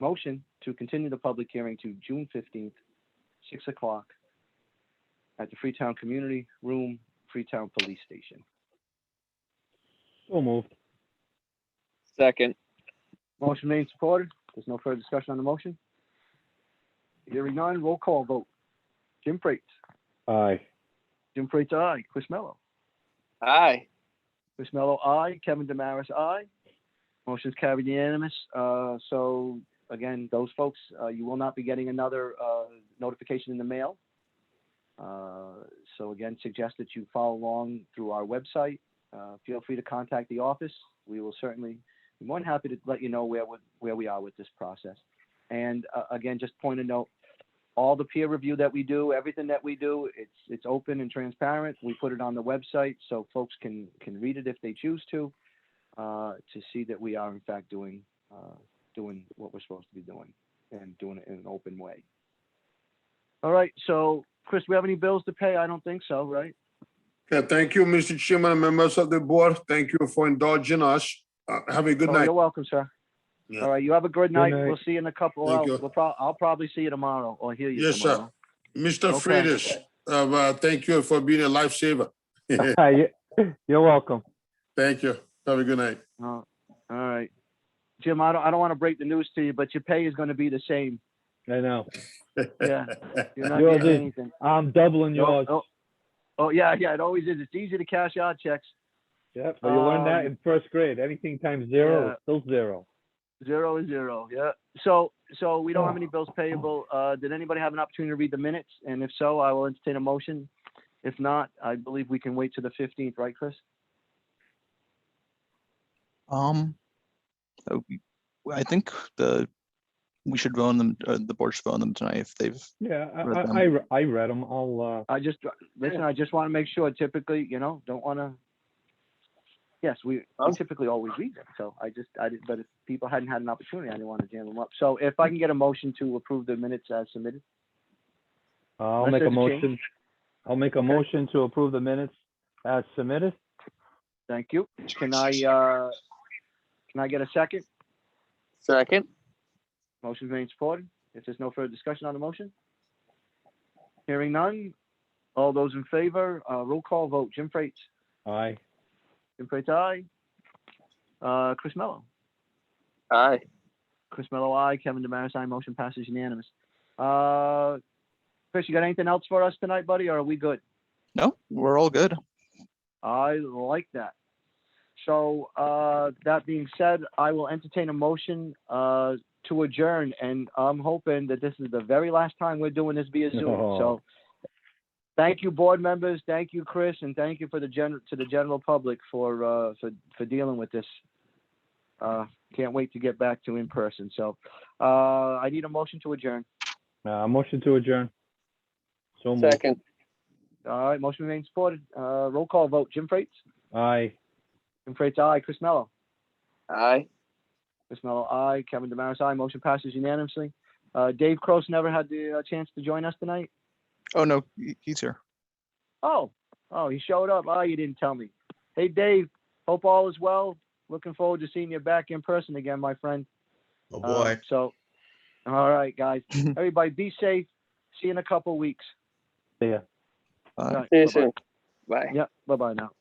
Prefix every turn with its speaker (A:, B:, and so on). A: motion to continue the public hearing to June fifteenth, six o'clock at the Freetown Community Room, Freetown Police Station.
B: So moved.
C: Second.
A: Motion made and supported. There's no further discussion on the motion. Hearing none, roll call vote. Jim Freites.
B: Aye.
A: Jim Freites, aye. Chris Mello.
C: Aye.
A: Chris Mello, aye. Kevin Damaris, aye. Motion's carried unanimous. Uh, so again, those folks, uh, you will not be getting another, uh, notification in the mail. Uh, so again, suggest that you follow along through our website. Uh, feel free to contact the office. We will certainly be more than happy to let you know where, we- where we are with this process. And, uh, again, just point a note, all the peer review that we do, everything that we do, it's, it's open and transparent. We put it on the website so folks can, can read it if they choose to, uh, to see that we are in fact doing, uh, doing what we're supposed to be doing and doing it in an open way. All right, so Chris, we have any bills to pay? I don't think so, right?
D: Okay, thank you, Mr. Chairman and members of the board. Thank you for indulging us. Uh, Have a good
A: Oh,
D: night.
A: You're welcome, sir.
D: Yeah.
A: All right, you have a good night.
B: night.
A: We'll see you in a couple
D: Thank
A: hours.
D: you.
A: We'll prob- I'll probably see you tomorrow or hear you
D: Yes, sir.
A: tomorrow.
D: Mr.
A: Okay.
D: Freitas, uh, uh, thank you for being a lifesaver.
B: Aye. You're welcome.
D: Thank you. Have a good night.
A: Uh, All right. Jim, I don't, I don't want to break the news to you, but your pay is going to be the same.
B: I know.
A: Yeah. You're not
B: Yours
A: getting
B: is.
A: anything.
B: I'm doubling
A: Oh,
B: yours.
A: oh. Oh, yeah, yeah, it always is. It's easy to cash out checks.
B: Yep. But you learned that in first grade. Anything times zero
A: Um, Yeah.
B: is still zero.
A: Zero is zero, yeah. So, so we don't have any bills payable. Uh, did anybody have an opportunity to read the minutes? And if so, I will entertain a motion. If not, I believe we can wait to the fifteenth, right, Chris?
E: Um, uh, we- I think the, we should vote on them, uh, the board should vote on them tonight if they've,
B: Yeah, I,
E: Read them.
B: I, I re- I read them. I'll, uh,
A: I just, listen, I just want to make sure typically, you know, don't want to. Yes, we we
C: Oh.
A: typically always read them, so I just, I did, but if people hadn't had an opportunity, I didn't want to jam them up. So if I can get a motion to approve the minutes as submitted,
B: uh, I'll
A: unless
B: make a
A: there's a change.
B: motion. I'll make a motion to approve the minutes as submitted.
A: thank you. Can I, uh, can I get a second?
C: Second.
A: Motion made and supported. If there's no further discussion on the motion? Hearing none. All those in favor, uh, roll call vote. Jim Freites.
B: Aye.
A: Jim Freites, aye. Uh, Chris Mello.
C: Aye.
A: Chris Mello, aye. Kevin Demaris, aye. Motion passes unanimous. Uh, Chris, you got anything else for us tonight, buddy, or are we good?
E: no, we're all good.
A: I like that. So, uh, that being said, I will entertain a motion, uh, to adjourn, and I'm hoping that this is the very last time we're doing this via Zoom.
B: No.
A: So, thank you, board members, thank you, Chris, and thank you for the gen, to the general public for, uh, for, for dealing with this. Uh, can't wait to get back to in person. So, uh, I need a motion to adjourn.
B: Uh, motion to adjourn. So moved.
C: Second.
A: All right, motion remains supported. Uh, roll call vote. Jim Freites?
B: Aye.
A: Jim Freites, aye. Chris Mello?
C: Aye.
A: Chris Mello, aye. Kevin Demaris, aye. Motion passes unanimously. Uh, Dave Cross never had the uh, chance to join us tonight.
E: Oh, no, he- he's here.
A: Oh, oh, he showed up. Oh, you didn't tell me. Hey, Dave, hope all is well. Looking forward to seeing you back in person again, my friend.
F: Oh,
A: Uh,
F: boy.
A: so, all right, guys. Everybody be safe. See you in a couple weeks.
B: See ya.
E: Uh,
A: All right,
C: See you
A: bye-bye.
C: soon. Bye.
A: Yep, bye-bye now.